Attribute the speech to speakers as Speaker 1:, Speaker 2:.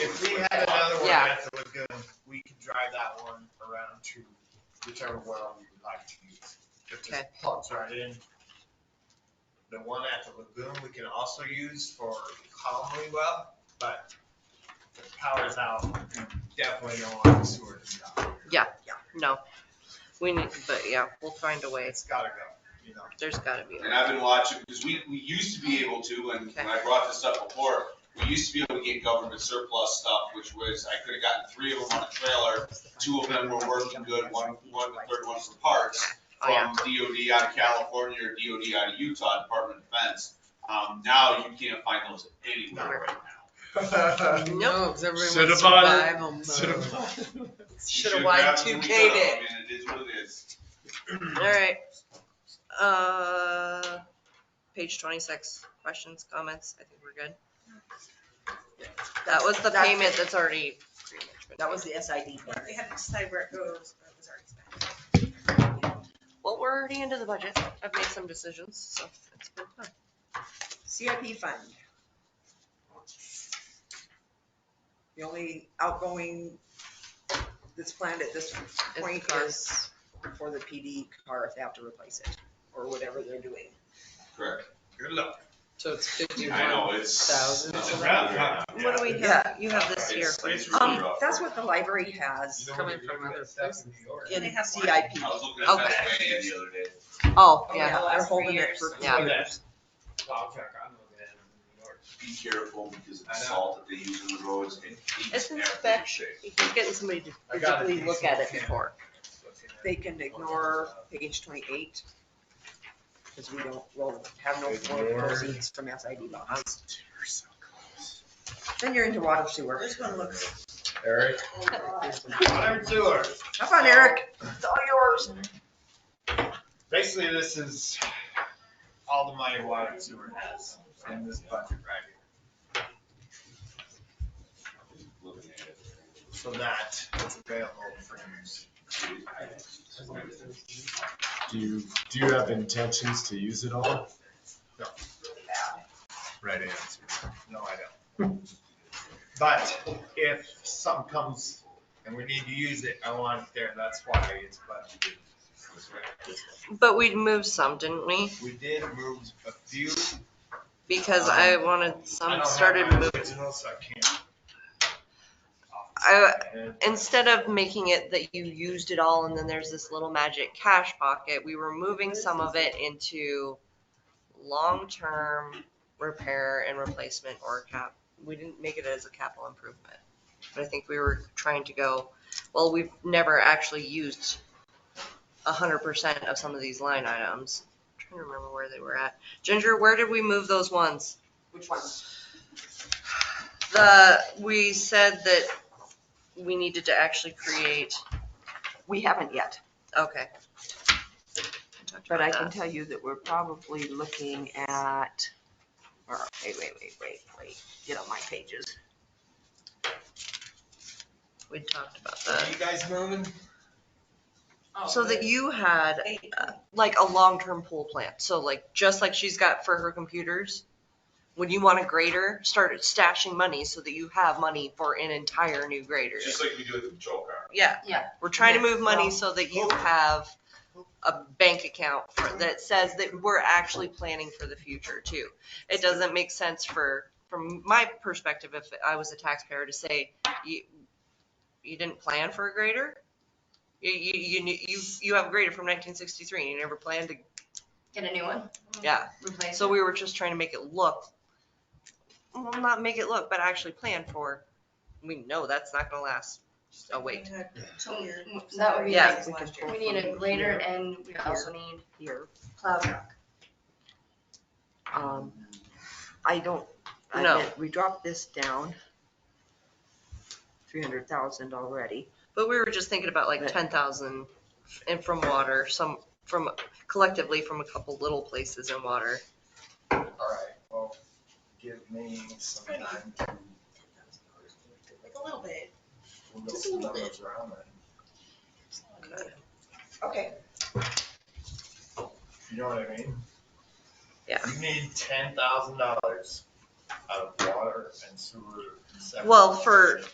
Speaker 1: had another one
Speaker 2: Yeah.
Speaker 1: that was good. We can drive that one around to whichever well we would like to use. If this
Speaker 2: Okay.
Speaker 1: plugs right in. The one at the lagoon, we can also use for Conway well, but the power's out. Definitely don't want the sewer to be out.
Speaker 2: No, we need, but yeah, we'll find a way.
Speaker 1: It's gotta go, you know.
Speaker 2: There's gotta be. a
Speaker 3: And I've been watching, because we, we used to be able to, and when I brought this up before, we used to be able to get government surplus stuff, which was, I could have gotten three of them on a trailer. Two of them were working good, one, one, the third one for parts.
Speaker 2: Oh, yeah.
Speaker 3: from DOD out of California or DOD out of Utah, Department of Defense. Um, now you can't find those anywhere right now.
Speaker 2: Nope.
Speaker 4: because everyone
Speaker 5: Should have
Speaker 4: wants
Speaker 5: bought it.
Speaker 4: survival mode.
Speaker 5: Should have bought
Speaker 3: You
Speaker 2: Should have
Speaker 3: grabbed them when
Speaker 2: Y2K'd
Speaker 3: we got them.
Speaker 2: it.
Speaker 3: I mean, it is what it is.
Speaker 2: All right. Uh, page twenty-six, questions, comments? I think we're good. That was the
Speaker 6: That's
Speaker 2: payment
Speaker 6: it.
Speaker 2: that's already. pretty much been
Speaker 6: That
Speaker 2: done.
Speaker 6: was the SID part.
Speaker 7: We had to decide where it goes, but it was already spent.
Speaker 2: Well, we're already into the budget. I've made some decisions, so it's been fun.
Speaker 6: CIP fund. The only outgoing that's planned at this
Speaker 2: It's
Speaker 6: point
Speaker 2: fun.
Speaker 6: is for the PD car if they have to replace it, or whatever they're doing.
Speaker 3: Correct.
Speaker 1: Good luck.
Speaker 4: So it's
Speaker 3: I
Speaker 4: fifty-one
Speaker 3: know, it's.
Speaker 4: thousand.
Speaker 3: it's a
Speaker 1: rough,
Speaker 3: wrap.
Speaker 1: huh?
Speaker 2: What do we have? You have this here.
Speaker 3: It's- it's really
Speaker 6: Um,
Speaker 3: rough.
Speaker 6: that's what the library has
Speaker 1: You know,
Speaker 2: Coming
Speaker 1: when you're
Speaker 2: from
Speaker 1: looking
Speaker 2: other
Speaker 1: at stuff in New York.
Speaker 6: in
Speaker 7: They have one.
Speaker 6: CIP.
Speaker 3: I was looking at
Speaker 2: Okay.
Speaker 3: Pennsylvania the other day.
Speaker 2: Oh,
Speaker 6: Oh,
Speaker 2: yeah.
Speaker 7: the
Speaker 6: They're
Speaker 7: last three
Speaker 6: holding it
Speaker 7: years.
Speaker 6: for two
Speaker 2: Yeah.
Speaker 6: years.
Speaker 1: Well, fuck, I'm looking at them in New York.
Speaker 3: Be careful because of the
Speaker 1: I know.
Speaker 3: salt that they use in the roads. It eats
Speaker 2: It's inspection.
Speaker 3: everything.
Speaker 2: He's getting somebody to
Speaker 1: I got a
Speaker 2: physically look
Speaker 1: decent
Speaker 2: at it
Speaker 1: camera.
Speaker 2: before.
Speaker 1: Looking at-
Speaker 6: They can ignore page twenty-eight, because we don't, we'll have no more
Speaker 1: Ignore.
Speaker 6: proceeds from SID bonds. Then you're into water sewer.
Speaker 7: This one looks.
Speaker 1: Eric? Water tour.
Speaker 6: Have on, Eric. It's all yours.
Speaker 1: Basically, this is all the money water and sewer has in this budget right here.
Speaker 3: Looking at it.
Speaker 1: So that is available for use.
Speaker 5: Do you, do you have intentions to use it all?
Speaker 1: Right answer. No, I don't. But if some comes and we need to use it, I want it there. That's why it's budgeted.
Speaker 2: But we'd moved some, didn't we?
Speaker 1: We did move a few.
Speaker 2: Because I wanted
Speaker 1: Uh-huh. I
Speaker 2: some
Speaker 1: don't have
Speaker 2: Um, started
Speaker 1: my
Speaker 2: moving.
Speaker 1: original, so I can't.
Speaker 2: I,
Speaker 1: And-
Speaker 2: instead of making it that you used it all and then there's this little magic cash pocket, we were moving some of it into long-term repair and replacement or cap. We didn't make it as a capital improvement. But I think we were trying to go, well, we've never actually used a hundred percent of some of these line items. I'm Trying to remember where they were at. Ginger, where did we move those ones?
Speaker 6: Which one?
Speaker 2: The, we said that we needed to actually create
Speaker 6: We haven't yet,
Speaker 2: Okay.
Speaker 6: but I can tell you that we're probably looking at, or, wait, wait, wait, wait, wait, get on my pages.
Speaker 2: We talked about
Speaker 1: Are
Speaker 2: that.
Speaker 1: you guys moving?
Speaker 2: So that you had
Speaker 7: They-
Speaker 2: uh, like a long-term pool plant. So like, just like she's got for her computers, when you want a grader, start stashing money so that you have money for an entire new grader.
Speaker 3: Just like we do with the patrol car.
Speaker 2: Yeah.
Speaker 6: Yeah.
Speaker 2: We're trying to
Speaker 6: Yeah,
Speaker 2: move money so that you have a bank account for- that says that we're actually planning for the future too. It doesn't make sense for, from my perspective, if I was a taxpayer to say, you, you didn't plan for a grader? You, you, you, knew- you, you have a grader from nineteen sixty-three and you never planned to,
Speaker 8: Get a new one,
Speaker 2: yeah.
Speaker 8: replace
Speaker 2: So we were just trying to make it look, well, not make it look, but actually plan for, we know that's not gonna last a week.
Speaker 8: it. So
Speaker 7: Here.
Speaker 8: That would be,
Speaker 2: Yeah.
Speaker 8: like- we need a grader and we also need
Speaker 6: Here,
Speaker 8: plow truck.
Speaker 6: um, I don't, I
Speaker 2: No.
Speaker 6: meant, we dropped this down. Three hundred thousand already.
Speaker 2: But we were just thinking about like
Speaker 6: But-
Speaker 2: ten thousand and from water, some from collectively from a couple little places in water.
Speaker 1: All right, well, give me some time to.
Speaker 7: Like a little bit.
Speaker 1: we'll go
Speaker 7: Just a little
Speaker 1: some numbers around it.
Speaker 6: Okay.
Speaker 1: You know what I mean?
Speaker 2: Yeah.
Speaker 1: You need ten thousand dollars out of water and sewer. and septic.
Speaker 2: Well, for